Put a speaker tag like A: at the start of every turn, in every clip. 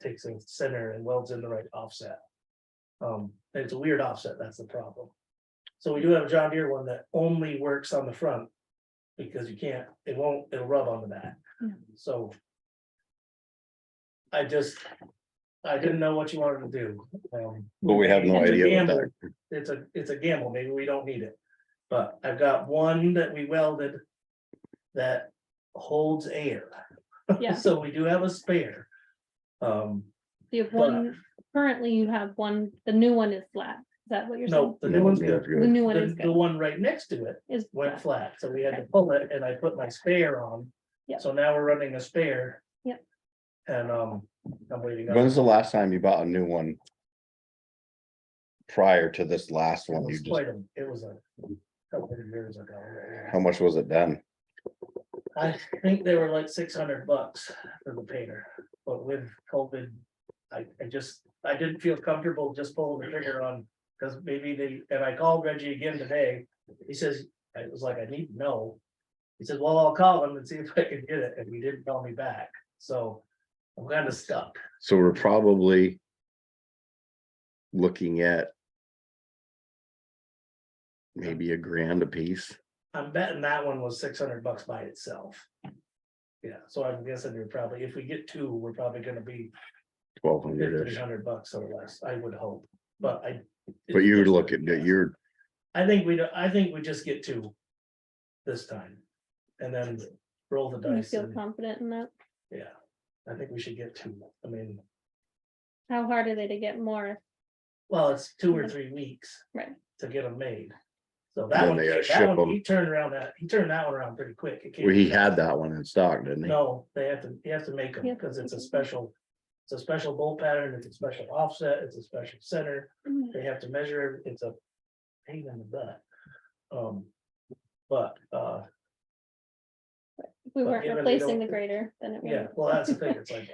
A: takes a center and welds in the right offset. Um, and it's a weird offset, that's the problem. So we do have a John Deere one that only works on the front. Because you can't, it won't, it'll rub on the back,
B: Yeah.
A: so. I just, I didn't know what you wanted to do, um.
C: But we have no
A: It's a
C: idea what
A: gamble.
C: that,
A: It's a, it's a gamble, maybe we don't need it. But I've got one that we welded. That holds air,
B: Yeah,
A: so we do have a spare. Um,
B: you have one, currently you have one, the new one is flat. Is that what you're saying?
A: no, the new
C: no,
A: one's
C: yeah,
A: good.
C: it's
B: The
C: good.
B: new one is
A: The, the
B: good,
A: one right next to it
B: is
A: went
B: flat.
A: flat, so we had to pull it and I put my spare on.
B: Yeah.
A: So now we're running a spare.
B: Yeah.
A: And, um, I'm waiting on
C: When's the last time you bought a new one? Prior to this last one, you
A: It's
C: just,
A: quite a- It was a couple of years ago.
C: how much was it done?
A: I think they were like six hundred bucks for the painter, but with COVID, I, I just, I didn't feel comfortable just pulling the trigger on. Cause maybe they, and I called Reggie again today, he says, I was like, I need to know. He said, well, I'll call him and see if I can get it, and he didn't call me back, so I'm kinda stuck.
C: So we're probably. Looking at. Maybe a grand a piece.
A: I'm betting that one was six hundred bucks by itself. Yeah, so I'm guessing we're probably, if we get two, we're probably gonna be
C: twelve hundred
A: fifteen
C: ish,
A: hundred bucks or less, I would hope, but I.
C: but you would look at, that, you're,
A: I think we, do- I think we just get two this time. And then roll the
B: You
A: dice.
B: feel
A: and-
B: confident in that?
A: Yeah, I think we should get two. I mean,
B: How hard are they to get more?
A: well, it's two or three weeks.
B: Right.
A: To get them made. So
C: Then
A: that one,
C: they gotta
A: that
C: ship
A: one, he
C: 'em.
A: turned around that, he turned that one around pretty quick. It
C: well,
A: came-
C: he had that one in stock, didn't he?
A: No, they have to, you have to make them
B: Yeah.
A: because it's a special, it's a special bolt pattern, it's a special offset, it's a special center. they have to measure, it, it's a pain in the butt. Um, but, uh,
B: If we
A: But
B: weren't
A: given they
B: replacing
A: don't-
B: the grader, then it
A: yeah,
B: would.
A: well, that's the thing, it's like,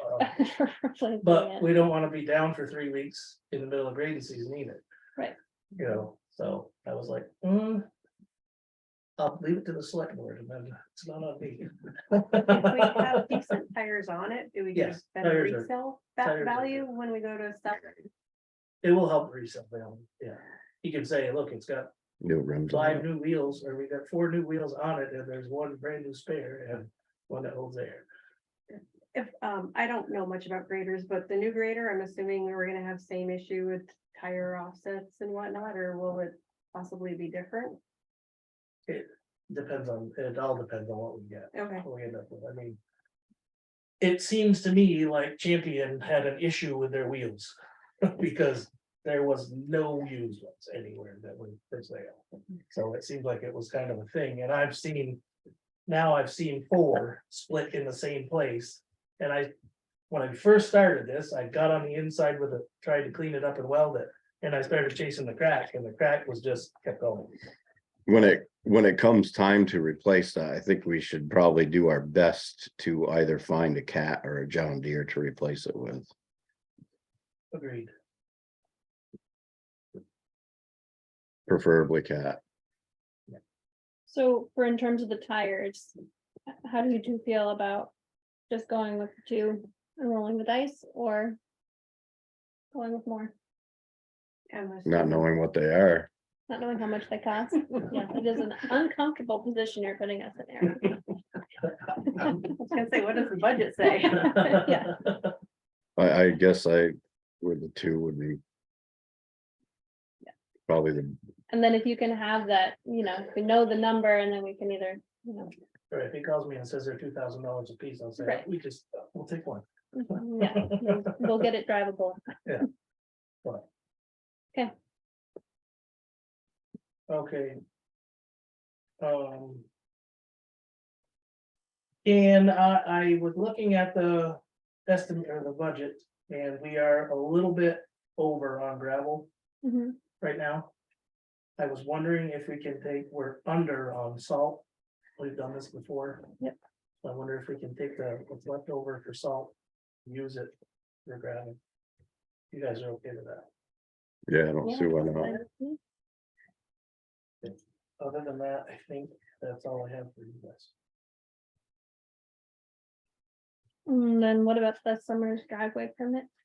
A: uh, but we don't wanna be down for three weeks in the middle of grading season either.
B: Right.
A: You know, so I was like, hmm. I'll leave it to the select board and then it's not on me.
D: If we have decent tires on it, do we get a
A: Yes,
D: better
A: tires are-
D: resale
A: tires are good.
D: va- value when we go to stuff?
A: It will help resell them, yeah. You can say, look, it's got
C: New rims. on
D: Mhm.
A: five
C: it.
A: new wheels, or we got four new wheels on it, and there's one brand new spare and one that holds air.
D: If, um, I don't know much about graders, but the new grader, I'm assuming we were gonna have same issue with tire offsets and whatnot, or will it possibly be different?
A: Depends on, it all depends on what we get.
D: Okay,
A: we end up with, I mean. It seems to me like Champion had an issue with their wheels, because there was no used ones anywhere that were for sale. So it seems like it was kind of a thing, and I've seen, now I've seen four split in the same place. And I, when I first started this, I got on the inside with it, tried to clean it up and weld it, and I started chasing the crack, and the crack was just kept going.
C: When it, when it comes time to replace that, I think we should probably do our best to either find a cat or a John Deere to replace it with.
A: Agreed,
C: Preferably cat,
B: So for in terms of the tires, h- how do you two feel about just going with the two and rolling the dice or going with more,
D: I'm
C: not
D: assuming-
C: knowing what they are.
B: not knowing how much they cost? Yeah, it is an uncomfortable position you're putting us in there.
D: I was gonna say, what does the budget say?
B: Yeah.
C: I, I guess I, would the two would be. Probably the,
B: And then if you can have that, you know, if we know the number and then we can either, you know,
A: or if he calls me and says they're two thousand dollars a piece, I'll say,
B: Right.
A: we just, we'll take one.
B: yeah, we'll- we'll get it drivable.
A: Okay. Um. And I, I was looking at the estimate or the budget, and we are a little bit over on gravel
B: Mhm.
A: right now. I was wondering if we can take, we're under on salt. We've done this before.
B: Yep.
A: I wonder if we can take the, what's left over for salt, use it for gravel. You guys are okay with that?
C: yeah, I don't see why not.
B: Yeah.
A: Other than that, I think that's all I have for you guys.
B: And then what about the summer's driveway permit?